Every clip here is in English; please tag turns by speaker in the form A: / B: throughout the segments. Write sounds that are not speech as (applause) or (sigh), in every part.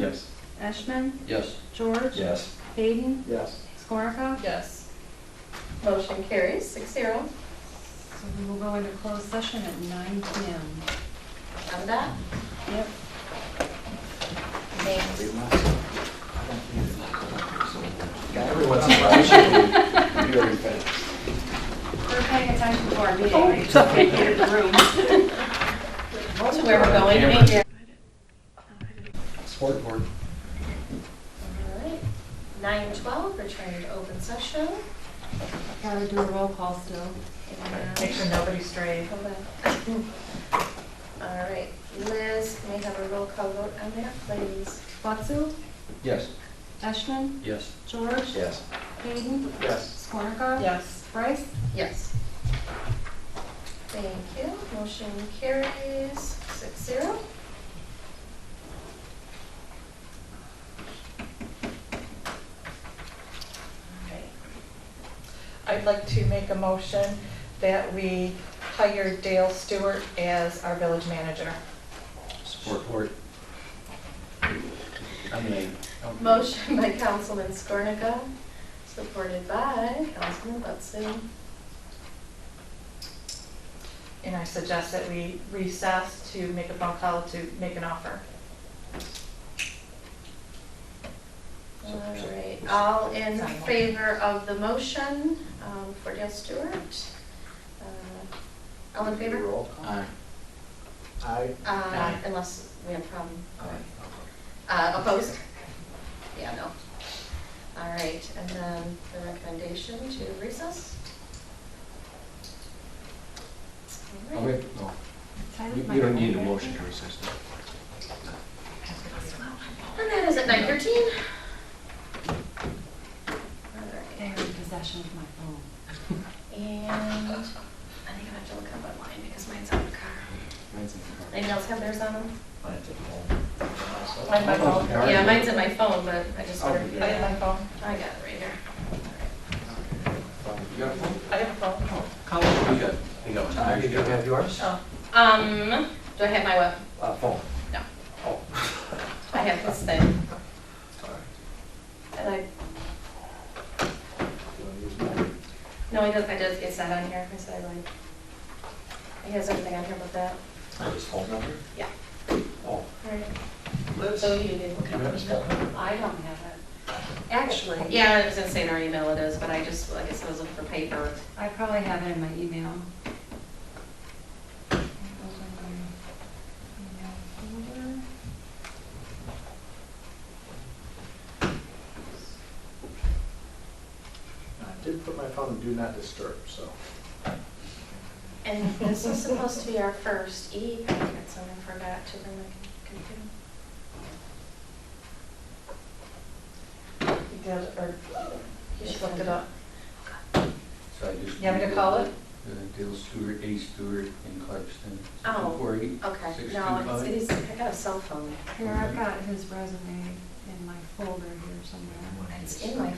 A: Yes.
B: Ashman,
C: Yes.
B: George.
A: Yes.
B: Hayden,
D: Yes.
B: Skorica.
E: Yes. Motion carries six zero
B: So we will go into closed session at nine PM.
E: on that.
B: Yep.
E: Thanks.
D: Everyone's surprised.
C: Very fast.
B: (laughs) We're paying attention to our meeting. Oh, sorry. (laughs) the room.
E: To where we're going, maybe. All
D: Sport board.
E: right. Nine twelve, return to open session.
B: Gotta do a roll call still.
E: And- uh,
F: Make sure nobody's strayed.
E: Hold on. (laughs) All right, Liz, may I have a roll call vote on that, please?
B: Watson,
C: Yes.
B: Ashman,
C: Yes.
B: George.
A: Yes.
B: Hayden,
D: Yes.
B: Skorica.
F: Yes.
B: Bryce.
E: Yes. Thank you. Motion carries six zero.
F: I'd like to make a motion that we hire Dale Stewart as our village manager.
C: Support. I mean.
E: Motion by Councilman Skornica, supported by Councilman Letson.
F: And I suggest that we recess to make a phone call to make an offer.
E: All right, all in favor of the motion um, for Dale Stewart? Uh, All in favor?
D: Roll.
C: Aye.
D: Aye.
E: Uh, Unless we have a problem. Uh, Opposed? Yeah, no. All right, and then the recommendation to recess? All right.
C: Okay, no. You you don't need a motion to recess now.
E: And that is at nine thirteen.
B: They are in possession of my phone.
E: And I think I have to look up online because mine's on the car. Anyone else have theirs on them?
F: I have my phone.
E: Yeah, mine's Oh, in Oh, my phone, but I just wondered. if you
F: I have
E: had
F: my
E: it.
F: phone.
E: I got it right here. All
C: You got a phone?
F: I have a phone.
C: Colin, Oh, you got, you got.
D: Uh, you don't have yours?
F: Oh,
E: right. Um, do I have my web?
D: Uh, phone.
E: No,
D: Oh.
E: I have this thing.
D: Sorry.
E: And I,
D: You wanna use mine?
E: no, I don't, I just, it's not on here. I said I lied. He has everything on here but that.
D: His phone number?
E: Yeah.
D: Oh.
E: All right.
D: Liz?
E: So you did look
D: Do you
E: up.
D: have his phone number?
B: I don't have it.
E: Actually, yeah, I was gonna say in our email it is, but I just, like I said, I was looking for paper.
B: I probably have it in my email.
D: I did put my phone in do not disturb, so.
E: And this is supposed to be our first E packet, so I forgot to bring my computer.
F: you did, or you should look it up.
C: So I just-
F: You want me to call it?
C: Uh, Dale Stewart, A Stewart, and Clarkston.
E: Oh,
C: 248,
E: Okay,
C: 625.
E: no, it's, it is- I got a cell phone.
B: Here, I've got his resume in my folder here somewhere.
E: It's in my, uh,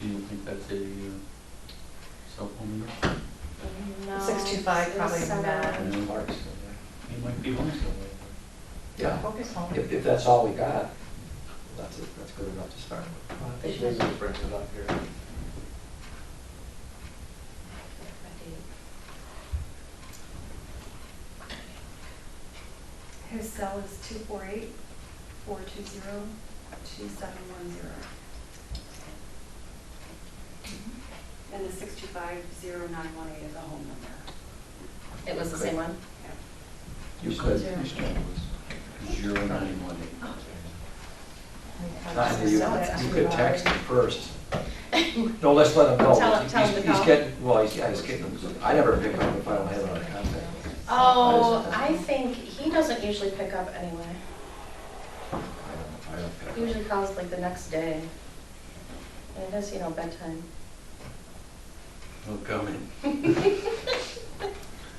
C: Do you think that's a uh, cell phone number?
E: uh, no.
F: 625 probably
E: it's, uh,
F: not.
C: Mhm.
D: Clark's still
C: It might be one somewhere.
D: there. Yeah.
F: Focus on
D: If, if that's all we got, that's, it. that's good enough to start with. I think Liz is bringing it up here.
B: His cell is two four eight, four two zero, two seven one zero. And the six two five zero nine one eight is a home number.
E: It was the same one?
C: You could. Zero nine one eight.
D: Not
E: No,
D: you.
E: it's
D: You
E: too
D: could
E: loud.
D: text him first. (laughs) No, let's let him know.
E: Tell him- tell him
D: He's-
E: to call.
D: He's getting, well, he's, yeah, he's getting, I never pick up if I don't have it on contact.
E: Oh, I think, he doesn't usually pick up anyway.
D: I don't, I don't pick
E: He
D: up.
E: usually calls like the next day. And it is, you know,
D: (laughs)
E: bedtime.
C: No comment. (laughs)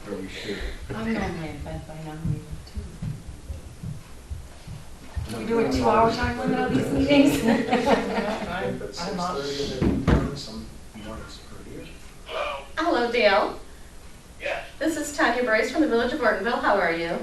C: Or we should.
B: I'm normally in bed by now, maybe two.
D: Can
B: we do a two-hour time limit on these
D: (laughs)
B: meetings? (laughs)
D: I
F: I'm
D: think that's
F: I'm up.
D: 6:30 in the morning, some mornings earlier.
E: Hello, Dale. Yes. This is Tanya Brace from the Village of Ortonville. How are you?